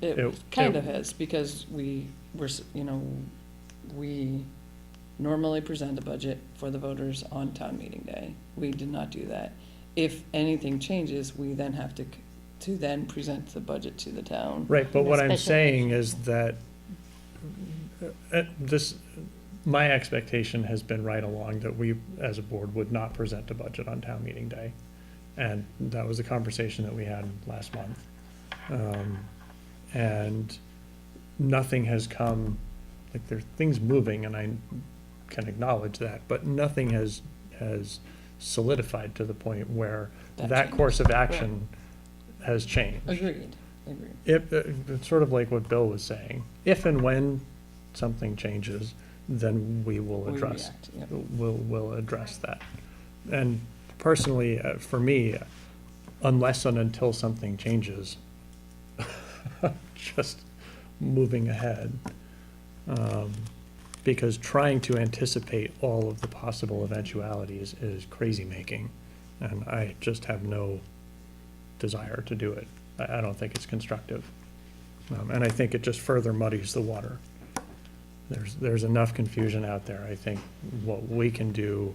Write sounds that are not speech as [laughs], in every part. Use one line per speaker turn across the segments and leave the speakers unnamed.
It
It-
kind
it-
of has, because we, were, s- you know, we normally present the budget for the voters on town meeting day. We did not do that. If anything changes, we then have to, c- to then present the budget to the town.
Right, but what I'm
Special
saying is that uh, this, my expectation has been right along that we, as a board, would not present a budget on town meeting day. And that was the conversation that we had last month. Um, And nothing has come, like, there are things moving, and I can acknowledge that, but nothing has, has solidified to the point where
That
that
changed.
course of action has changed
Agreed, agreed.
if, it's sort of like what Bill was saying, if and when something changes, then we will
We
address,
react, yep.
we'll, we'll address that. And personally, uh, for me, uh, unless and until something changes, [laughs] just moving ahead. Um, Because trying to anticipate all of the possible eventualities is crazy-making, and I just have no desire to do it. I, I don't think it's constructive. Um, and I think it just further muddies the water. There's, there's enough confusion out there. I think what we can do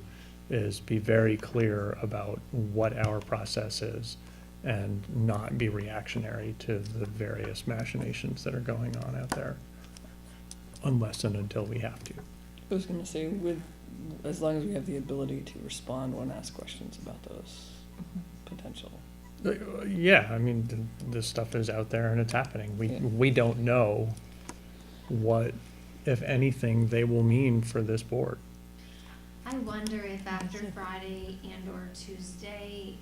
is be very clear about what our process is and not be reactionary to the various machinations that are going on out there, unless and until we have to.
I was gonna say, with, as long as we have the ability to respond when asked questions about those potential.
Uh, Yeah, I mean, th- this stuff is out there and it's happening. We,
Yeah.
we don't know what, if anything, they will mean for this board.
I wonder if after Friday and or Tuesday,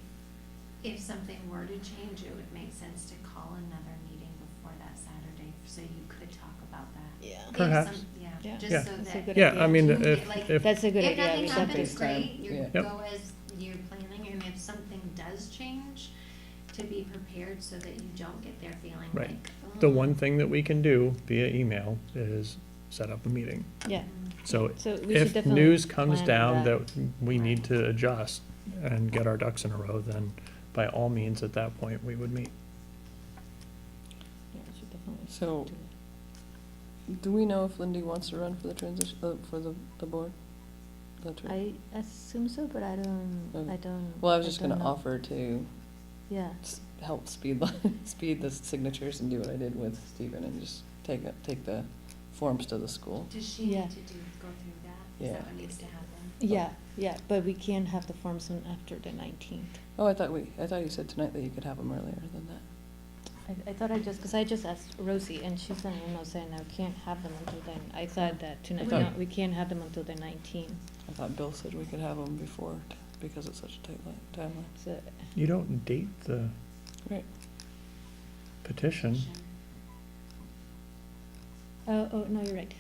if something were to change, it would make sense to call another meeting before that Saturday, so you could talk about that.
Yeah.
If
Perhaps.
some-
Yeah.
Yeah,
Yeah.
just so
That's a
that.
good
Yeah, I
idea.
mean,
you get,
if,
like,
if,
That's a good
If
idea.
nothing
We should do
happens,
Saturday.
great, you
Yeah.
Yep.
go as you're planning, and if something does change, to be prepared so that you don't get there feeling
Right.
like.
the
"Oh,
one thing that we can do via email is set up a meeting.
Yeah,
mm,
So
so we should
if
definitely.
news comes
plan for
down that we need to adjust and get our ducks in a row, then by all means, at that point, we would meet.
Yeah, we should definitely
So-
do
Do we know if Lindy wants to run for the transition, uh, for the, the board? The
that.
tran-
I assume so, but I don't,
Okay.
I don't.
Um, Well, I was
I
just
don't
gonna
know.
offer to
Yeah,
s- help speed, [laughs] speed the signatures and do what I did with Stephen and just take, it- take the forms to the school.
Does she
Yeah.
need to do, go through that? Is
Yeah.
that what needs to happen?
yeah, yeah, but we can have the forms in after the nineteenth.
Oh, I thought we, I thought you said tonight that you could have them earlier than that.
I, I thought I just, because I just asked Rosie and she sent an email saying I can't have them until then. I thought that tonight,
thought-
no, we can't have them until the nineteenth,
I thought Bill said we could have them before, t- because it's such a tight li- timeline.
so.
You don't date the
Right.
petition.
Oh, oh, no, you're right.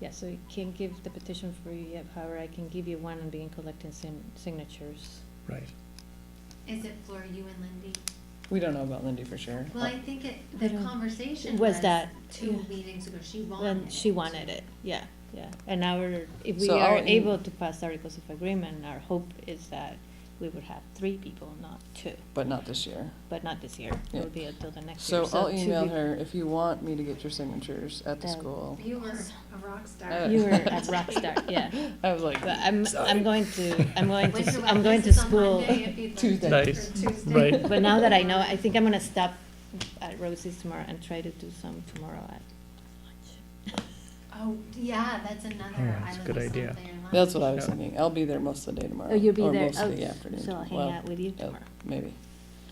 Yeah, so you can't give the petition for you yet, however, I can give you one and begin collecting sin- signatures.
Right.
Is it for you and Lindy?
We don't know about Lindy for sure.
Well, I think it, the
I don't-
conversation
Was
was
that-
two
yeah.
meetings ago, she wanted
When she wanted it, yeah, yeah. And our, if we
So
are
our aim-
able to pass articles of agreement, our hope is that we would have three people, not two,
But not this year.
but not this year.
Yeah.
It'll be until the next year.
So I'll
two
email
people-
her, if you want me to get your signatures at the
That-
school.
You were a rock
Uh,
Oh.
star.
[laughs]
You were a
[laughs]
rock star, yeah.
I was like,
But
[laughs]
I'm,
sorry.
I'm going to, I'm going
Went
to,
to
I'm going to
Atlantis on
school.
Monday if you'd like,
Tuesday.
or
Nice.
Tuesday.
Right.
[laughs] But now that I know, I think I'm gonna stop at Rosie's tomorrow and try to do some tomorrow at lunch.
[laughs] Oh, yeah, that's another.
Yeah,
I
that's a
love
good
this
idea.
something I
That's
love.
what I was
Yeah.
thinking. I'll be there most of the day tomorrow.
Oh, you'll be
or
there.
most of
Oh,
the afternoon.
so I'll hang
Well,
out with you
yeah,
tomorrow.
Maybe,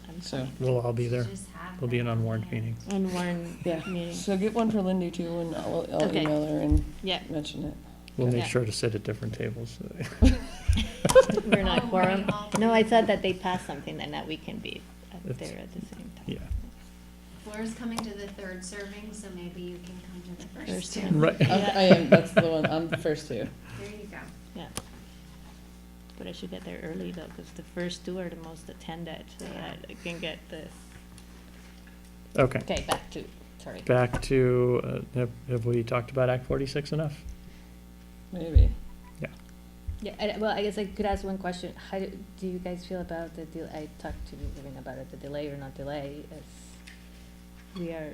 I'm
so.
We'll all be there.
Just have
It'll be an
that
unwarned
there.
meeting.
On one
Yeah,
meeting,
so get one for Lindy too, and I'll, I'll
Okay.
email her and
yeah,
mention it.
We'll make
Yeah.
sure to sit at different tables. [laughs]
we're not
Oh,
quorum.
right, all
No, I
three.
thought that they passed something and that we can be up
It's-
there at the same time.
Yeah,
Laura's coming to the third serving, so maybe you can come to the
First
first two.
one.
right.
I
Yeah.
I am, that's the one, I'm the first two.
There you go.
Yeah. But I should get there early though, because the first two are the most attended, so that I can get the,
Okay,
okay, back to, sorry.
back to, uh, have, have we talked about Act forty-six enough?
Maybe.
Yeah, I, well, I guess I could ask one question. How do, do you guys feel about the deal? I talked to Vivian about it, the delay or not delay. As we are